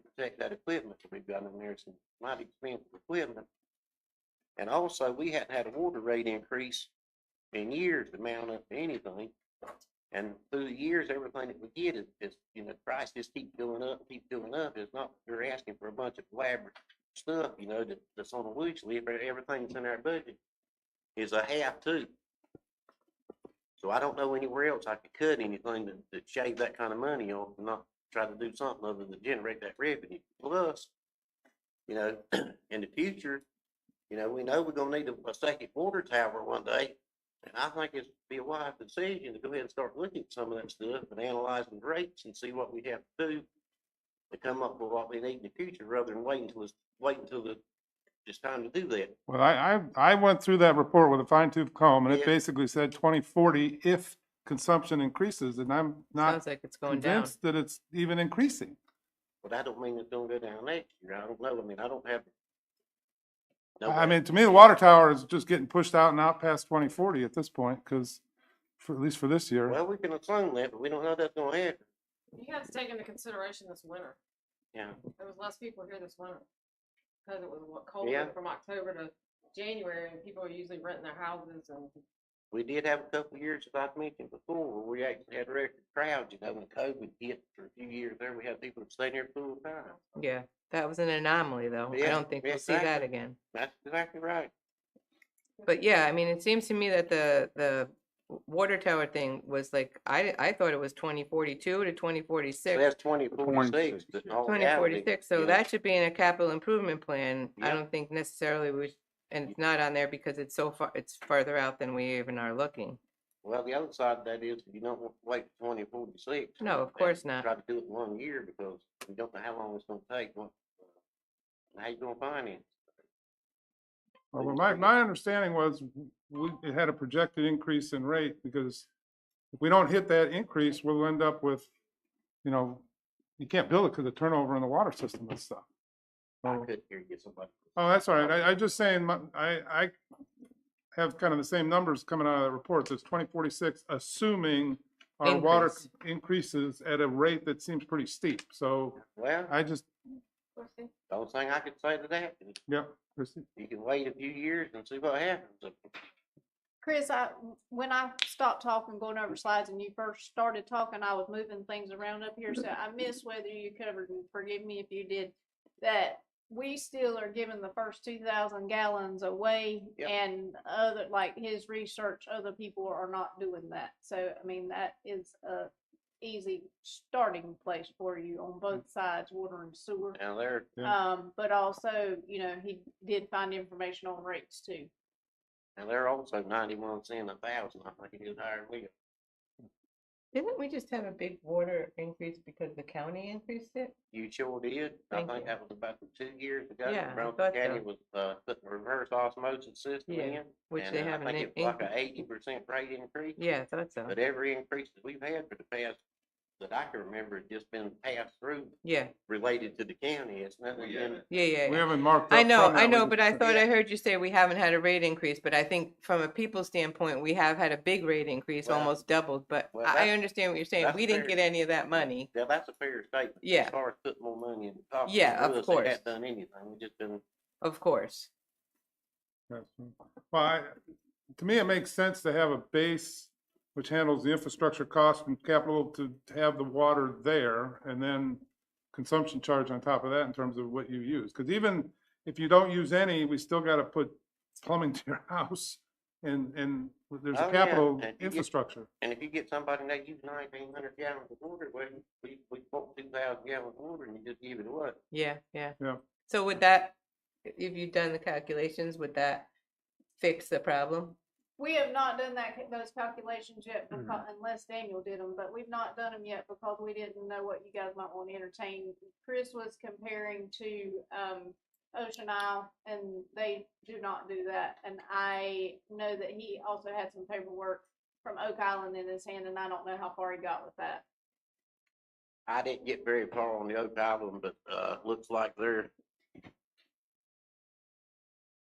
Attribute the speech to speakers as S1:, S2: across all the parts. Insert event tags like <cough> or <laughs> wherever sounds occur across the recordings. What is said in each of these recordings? S1: protect that equipment that we've got in there, some mighty expensive equipment. And also, we hadn't had a water rate increase in years to mount up to anything. And through the years, everything that we get is, is, you know, price just keep going up, keep going up. It's not, you're asking for a bunch of elaborate stuff, you know, that, that's on a wish list, but everything that's in our budget is a half too. So I don't know anywhere else I could cut anything to, to shave that kind of money off and not try to do something other than generate that revenue. Plus, you know, <clears throat> in the future, you know, we know we're gonna need a, a second water tower one day. And I think it's be a wise decision to go ahead and start looking at some of that stuff and analyzing rates and see what we have to do to come up with what we need in the future rather than waiting until it's, waiting until the, it's time to do that.
S2: Well, I, I, I went through that report with a fine tooth comb and it
S1: Yeah.
S2: basically said twenty forty if consumption increases and I'm not
S3: Sounds like it's going down.
S2: convinced that it's even increasing.
S1: But I don't mean it's gonna go down next year. I don't know. I mean, I don't have. no
S2: I
S1: way.
S2: mean, to me, the water tower is just getting pushed out and out past twenty forty at this point, because for, at least for this year.
S1: Well, we can assume that, but we don't know that's gonna happen.
S4: You have to take into consideration this winter.
S1: Yeah.
S4: There was less people here this winter. Cause it was what colder
S1: Yeah.
S4: from October to January and people are usually renting their houses and
S1: We did have a couple of years, as I've mentioned before, where we actually had record crowds, you know, when COVID hit for a few years there, we had people staying there full time.
S3: Yeah, that was an anomaly though. I
S1: Yeah,
S3: don't think we'll see that
S1: exactly.
S3: again.
S1: That's exactly right.
S3: But yeah, I mean, it seems to me that the, the w- water tower thing was like, I, I thought it was twenty forty-two to twenty
S1: So
S3: forty-six.
S1: That's twenty forty-six.
S2: 2046, yeah.
S3: Twenty forty-six, so that should be in a capital improvement plan. I
S1: Yep.
S3: don't think necessarily we, sh- and it's not on there because it's so far, it's farther out than we even are looking.
S1: Well, the other side of that is, you don't want to wait for twenty forty-six.
S3: No, of course not.
S1: Try to do it in one year because we don't know how long it's gonna take, what, and how you gonna finance.
S2: Well, but my, my understanding was, we, it had a projected increase in rate, because if we don't hit that increase, we'll end up with, you know, you can't build it because of turnover in the water system and stuff.
S1: I
S2: So-
S1: couldn't hear you, somebody.
S2: Oh, that's all right. I, I just saying, my- I, I have kind of the same numbers coming out of the reports. It's twenty forty-six, assuming our water
S3: Increase.
S2: c- increases at a rate that seems pretty steep. So
S1: Well,
S2: I just,
S1: the only thing I could say to that is
S2: yep, Christie.
S1: you can wait a few years and see what happens.
S5: Chris, I, when I stopped talking, going over slides and you first started talking, I was moving things around up here, so I missed whether you covered, and forgive me if you did, that we still are giving the first two thousand gallons away
S1: Yep.
S5: and other, like his research, other people are not doing that. So, I mean, that is a easy starting place for you on both sides, water and sewer.
S1: Now, there,
S2: Yeah.
S5: Um, but also, you know, he did find information on rates too.
S1: And they're also ninety months in a thousand, I think it is higher than we are.
S3: Didn't we just have a big water increase because the county increased it?
S1: You sure did. I
S3: Thank
S1: think
S3: you.
S1: that was about two years ago.
S3: Yeah, I
S1: Brown
S3: thought
S1: County
S3: so.
S1: was, uh, putting a reverse osmosis system
S3: Yeah,
S1: in.
S3: Which
S1: and,
S3: they
S1: uh,
S3: haven't.
S1: I
S3: in-
S1: think it was like
S3: increased.
S1: a eighty percent rate increase.
S3: Yeah, I thought so.
S1: But every increase that we've had for the past, that I can remember, has just been passed through
S3: Yeah,
S1: related to the county. It's nothing been,
S3: yeah, yeah.
S2: We
S3: yeah.
S2: haven't marked up.
S3: I know,
S2: from that.
S3: I
S2: We
S3: know,
S2: just-
S3: but I thought
S1: Yeah.
S3: I heard you say we haven't had a rate increase, but I think from a people standpoint, we have had a big rate increase,
S1: Well,
S3: almost doubled, but
S1: well,
S3: I I
S1: that's-
S3: understand what you're saying.
S1: that's
S3: We didn't
S1: fair.
S3: get any of that money.
S1: now, that's a fair statement.
S3: Yeah.
S1: As far as putting more money in the coffers.
S3: Yeah, of
S1: for us,
S3: course.
S1: They haven't done anything. We've just been,
S3: Of course.
S2: Yes. Well, I, to me, it makes sense to have a base which handles the infrastructure cost and capital to to have the water there and then consumption charge on top of that in terms of what you use. Because even if you don't use any, we still got to put plumbing <laughs> to your house and, and there's
S1: Oh,
S2: a
S1: yeah,
S2: capital
S1: and you get-
S2: infrastructure.
S1: and if you get somebody that uses nineteen hundred gallons of water, well, we, we bought two thousand gallons of water and you just give it away.
S3: Yeah, yeah.
S2: Yeah.
S3: So would that, if you've done the calculations, would that fix the problem?
S5: We have not done that, ca- those calculations yet, becau- unless Daniel did them, but we've not done them yet because we didn't know what you guys might want to entertain. Chris was comparing to, um, Ocean Isle, and they do not do that. And I know that he also had some paperwork from Oak Island in his hand, and I don't know how far he got with that.
S1: I didn't get very far on the Oak Island, but, uh, looks like they're,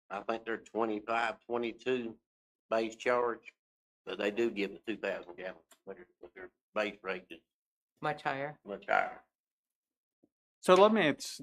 S1: I think they're 25, 22 base charge, but they do give the two thousand gallons, but their, but their base rate is
S3: Much higher?
S1: much higher.
S6: So let me, it's,